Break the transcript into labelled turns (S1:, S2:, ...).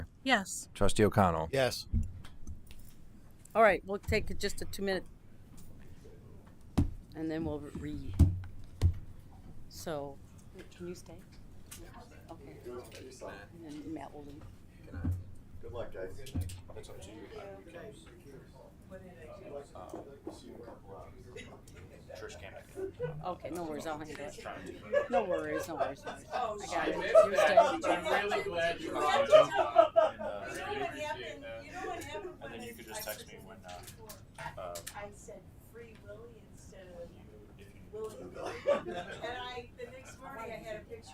S1: Yes.
S2: Trustee O'Connell.
S3: Yes.
S4: All right, we'll take a- just a two minute. And then we'll read. So, can you stay? Okay. And then Matt will leave.
S5: Good luck, guys.
S4: Okay, no worries, I'll handle it. No worries, no worries, no worries. I got it. You stay.
S6: really glad you
S7: brought it
S6: up.
S7: You know what happened, you know what happened when I.
S6: then you could just
S7: I
S6: text me
S7: said
S6: when,
S7: this
S6: uh,
S7: before.
S6: uh,
S7: I said free Willy instead of Willy. And I, the next morning I had a picture